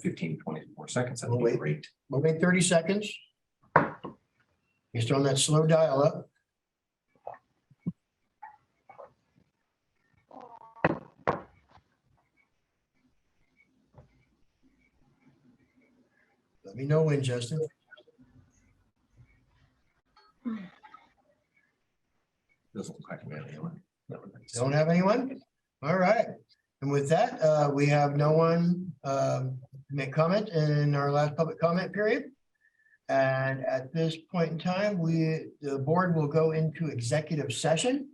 fifteen, twenty-four seconds, that'd We'll be wait. great. We'll wait thirty seconds. Just on that slow dial up. Let me know when, Justin. Doesn't look like we have anyone. That would make Don't have anyone? All right. And with that, uh, we have no one, um, make comment in our last public comment period. And at this point in time, we, the board will go into executive session,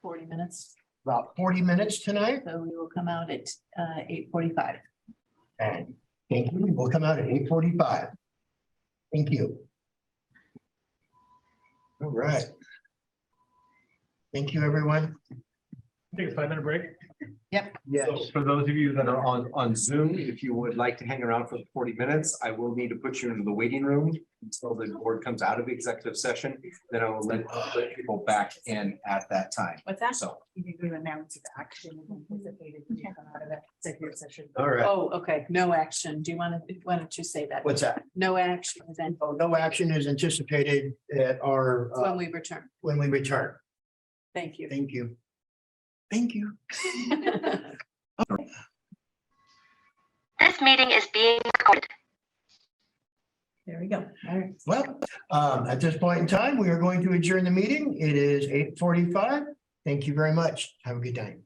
forty minutes, about forty minutes tonight. so we will come out at uh eight forty-five. And thank you. We'll come out at eight forty-five. Thank you. All right. Thank you, everyone. Take a five minute break. Yes. So For those of you that are on, on Zoom, if you would like to hang around for the forty minutes, I will need to put you into the waiting room until the board comes out of executive session, then I will let let people back in at that time. What's that? So, You need to announce the action anticipated when you come out of that executive session. All right. Oh, okay, no action. Do you want to, why don't you say that? What's that? No action is then Oh, no action is anticipated at our, uh, when we return. when we return. Thank you. Thank you. Thank you. This meeting is being recorded. There we go. All right. Well, um, at this point in time, we are going to adjourn the meeting. It is eight forty-five. Thank you very much. Have a good night.